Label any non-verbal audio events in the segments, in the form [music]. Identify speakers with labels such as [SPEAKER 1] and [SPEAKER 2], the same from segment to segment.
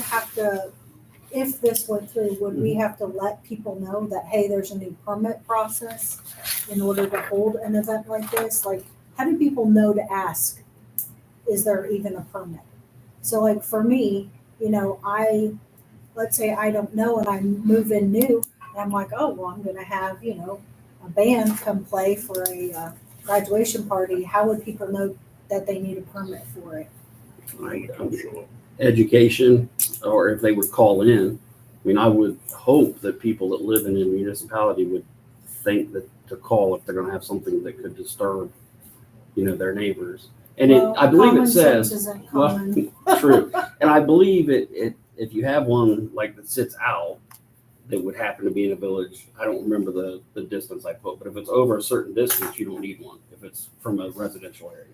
[SPEAKER 1] have to, if this went through, would we
[SPEAKER 2] Mm-hmm.
[SPEAKER 1] have to let people know that, hey, there's a new permit process in order to hold an event like this? Like, how do people know to ask, is there even a permit? So like for me, you know, I, let's say I don't know and I move in new and I'm like, oh, well, I'm gonna have, you know, a band come play for a uh, graduation party. How would people know that they need a permit for it?
[SPEAKER 2] like
[SPEAKER 3] Don't show up.
[SPEAKER 2] education, or if they would call in. I mean, I would hope that people that live in a municipality would think that to call if they're gonna have something that could disturb, you know, their neighbors. And it,
[SPEAKER 1] Well,
[SPEAKER 2] I believe
[SPEAKER 1] common
[SPEAKER 2] it
[SPEAKER 1] sense
[SPEAKER 2] says,
[SPEAKER 1] Isn't
[SPEAKER 2] well,
[SPEAKER 1] common.
[SPEAKER 2] true, and I believe it, it, if you have one like that sits out, that would happen to be in a village, I don't remember the, the distance I put, but if it's over a certain distance, you don't need one, if it's from a residential area.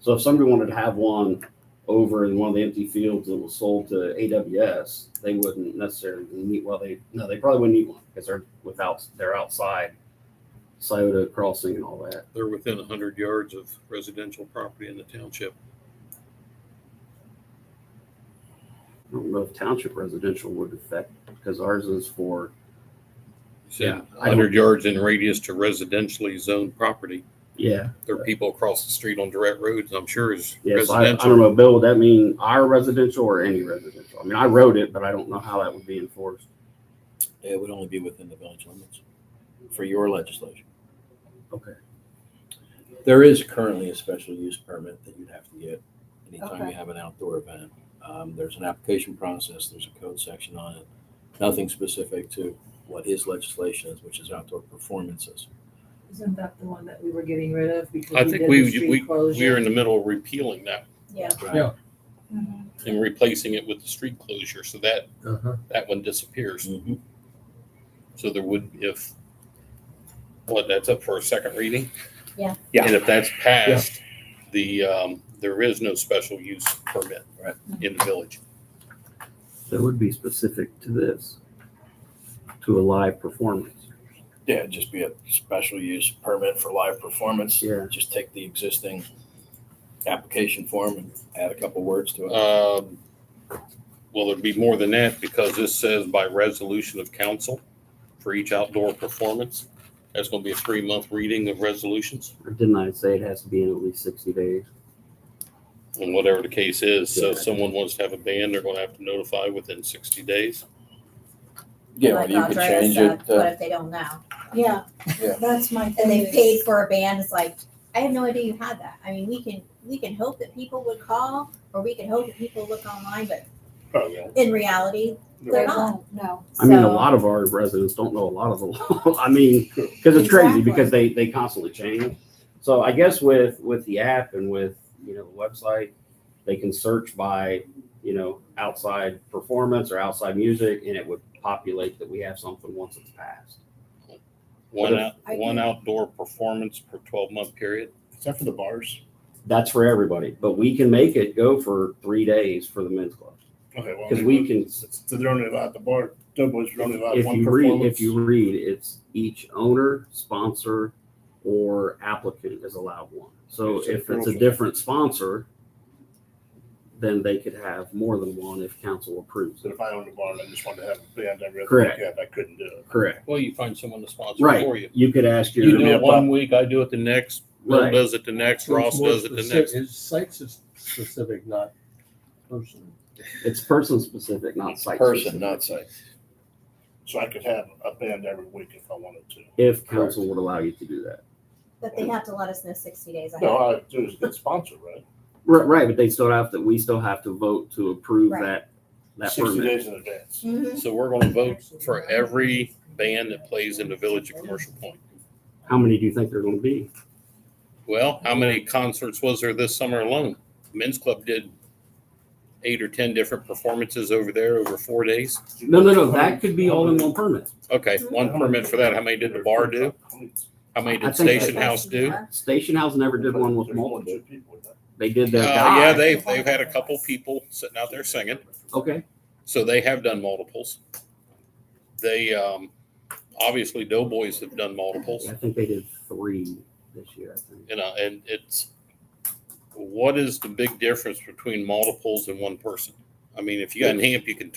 [SPEAKER 2] So if somebody wanted to have one over in one of the empty fields that was sold to AWS, they wouldn't necessarily need, well, they, no, they probably wouldn't need one, because they're without, they're outside Scioto Crossing and all that.
[SPEAKER 3] They're within a hundred yards of residential property in the township.
[SPEAKER 2] I don't know if township residential would affect, because ours is for Yeah,
[SPEAKER 3] Yeah,
[SPEAKER 2] I don't-
[SPEAKER 3] hundred yards in radius to residentially zoned property.
[SPEAKER 2] Yeah.
[SPEAKER 3] There are people across the street on direct roads, I'm sure is
[SPEAKER 2] Yes. I, I don't
[SPEAKER 3] residential.
[SPEAKER 2] know, Bill, would that mean our residential or any residential? I mean, I wrote it, but I don't know how that would be enforced.
[SPEAKER 4] It would only be within the village limits for your legislation.
[SPEAKER 2] Okay.
[SPEAKER 4] There is currently a special use permit that you'd have to get anytime
[SPEAKER 1] Okay.
[SPEAKER 4] you have an outdoor event. Um, there's an application process, there's a code section on it, nothing specific to what his legislation is, which is outdoor performances.
[SPEAKER 5] Isn't that the one that we were getting rid of because
[SPEAKER 3] I
[SPEAKER 5] we
[SPEAKER 3] think
[SPEAKER 5] did
[SPEAKER 3] we,
[SPEAKER 5] the street
[SPEAKER 3] we, we
[SPEAKER 5] closure?
[SPEAKER 3] are in the middle of repealing that
[SPEAKER 4] right?
[SPEAKER 6] Yeah.
[SPEAKER 1] Mhm.
[SPEAKER 3] and replacing it with the street closure, so that,
[SPEAKER 6] Uh-huh.
[SPEAKER 3] that one disappears.
[SPEAKER 4] Mhm.
[SPEAKER 3] So there would, if, what, that's up for a second reading?
[SPEAKER 1] Yeah.
[SPEAKER 6] Yeah.
[SPEAKER 3] And if that's passed, the, um, there is no special use permit.
[SPEAKER 4] Right.
[SPEAKER 3] In the village.
[SPEAKER 2] That would be specific to this, to a live performance.
[SPEAKER 4] Yeah, it'd just be a special use permit for live performance.
[SPEAKER 2] Yeah.
[SPEAKER 4] Just take the existing application form and add a couple words to it.
[SPEAKER 3] Um, Well, it'd be more than that because this says by resolution of council for each outdoor performance. That's gonna be a three-month reading of resolutions
[SPEAKER 2] Or didn't I say it has to be in at least sixty days?
[SPEAKER 3] and whatever the case is. So if
[SPEAKER 2] Yeah.
[SPEAKER 3] someone wants to have a band, they're gonna have to notify within sixty days.
[SPEAKER 4] Yeah, or
[SPEAKER 7] Like
[SPEAKER 4] you could
[SPEAKER 7] Andrea
[SPEAKER 4] change
[SPEAKER 7] said,
[SPEAKER 4] it. uh,
[SPEAKER 7] What if they don't know?
[SPEAKER 1] Yeah,
[SPEAKER 4] Yeah.
[SPEAKER 1] that's my thing.
[SPEAKER 7] And they
[SPEAKER 1] is-
[SPEAKER 7] paid for a band, it's like, I had no idea you had that. I mean, we can, we can hope that people would call, or we can hope that people look online, but
[SPEAKER 3] Oh, yeah.
[SPEAKER 7] in reality,
[SPEAKER 1] They
[SPEAKER 7] they're not.
[SPEAKER 1] won't, no.
[SPEAKER 2] I mean, a
[SPEAKER 7] So-
[SPEAKER 2] lot of our residents don't know a lot of the [laughs] law. I mean, because it's crazy
[SPEAKER 1] Exactly.
[SPEAKER 2] because they, they constantly change. So I guess with, with the app and with, you know, the website, they can search by, you know, outside performance or outside music and it would populate that we have something once it's passed.
[SPEAKER 3] One out,
[SPEAKER 1] I
[SPEAKER 3] one
[SPEAKER 1] think-
[SPEAKER 3] outdoor performance per twelve-month period.
[SPEAKER 8] Except for the bars.
[SPEAKER 2] That's for everybody, but we can make it go for three days for the men's club.
[SPEAKER 8] Okay, well.
[SPEAKER 2] Cause we can,
[SPEAKER 8] So they're only allowed the bar, Doughboys are only allowed
[SPEAKER 2] if
[SPEAKER 8] one
[SPEAKER 2] you read,
[SPEAKER 8] performance.
[SPEAKER 2] if you read, it's each owner, sponsor, or applicant is allowed one. So
[SPEAKER 8] Okay, so
[SPEAKER 2] if it's a
[SPEAKER 8] girls-
[SPEAKER 2] different sponsor, then they could have more than one if council approves
[SPEAKER 8] So
[SPEAKER 2] it.
[SPEAKER 8] if I owned a bar and I just wanted to have a band every other
[SPEAKER 2] Correct.
[SPEAKER 8] weekend, I couldn't do it.
[SPEAKER 2] Correct.
[SPEAKER 3] Well, you find someone to sponsor for
[SPEAKER 2] Right.
[SPEAKER 3] you.
[SPEAKER 2] You could ask
[SPEAKER 3] You
[SPEAKER 8] You're
[SPEAKER 3] do
[SPEAKER 8] gonna
[SPEAKER 2] your,
[SPEAKER 8] be
[SPEAKER 3] it
[SPEAKER 8] a
[SPEAKER 3] one week, I do it the next, Bill
[SPEAKER 2] Right.
[SPEAKER 3] does it the next,
[SPEAKER 6] So it's
[SPEAKER 3] Ross
[SPEAKER 6] more
[SPEAKER 3] does it the
[SPEAKER 6] specific-
[SPEAKER 3] next.
[SPEAKER 6] It's site s- specific, not person.
[SPEAKER 2] it's person specific, not site.
[SPEAKER 4] Person,
[SPEAKER 2] specific.
[SPEAKER 4] not site.
[SPEAKER 8] So I could have a band every week if I wanted to.
[SPEAKER 2] If council would allow you to do that.
[SPEAKER 7] But they have to let us know sixty days
[SPEAKER 8] No,
[SPEAKER 7] ahead.
[SPEAKER 8] all I have to do is get sponsored, right?
[SPEAKER 2] Right, right, but they still have to, we still have to vote to approve
[SPEAKER 7] Right.
[SPEAKER 2] that, that
[SPEAKER 8] Sixty
[SPEAKER 2] permit.
[SPEAKER 8] days in advance.
[SPEAKER 7] Mhm.
[SPEAKER 3] So we're gonna vote for every band that plays in the village of Commercial Point.
[SPEAKER 2] How many do you think there're gonna be?
[SPEAKER 3] Well, how many concerts was there this summer alone? Men's Club did eight or ten different performances over there over four days.
[SPEAKER 2] No, no, no, that could be all in one permit.
[SPEAKER 3] Okay, one permit for that. How many did the bar do? How many
[SPEAKER 2] I
[SPEAKER 3] did
[SPEAKER 2] think I-
[SPEAKER 3] Station House do? Uh,
[SPEAKER 2] Station House never did one with multiple. They did their guy.
[SPEAKER 3] Uh, yeah, they've, they've had a couple people sitting out there singing,
[SPEAKER 2] Okay,
[SPEAKER 3] so they have done multiples. They, um, obviously Doughboys have done multiples.
[SPEAKER 2] I think they did three this year, I think.
[SPEAKER 3] you know, and it's what is the big difference between multiples and one person? I I mean, if you got an amp, you can turn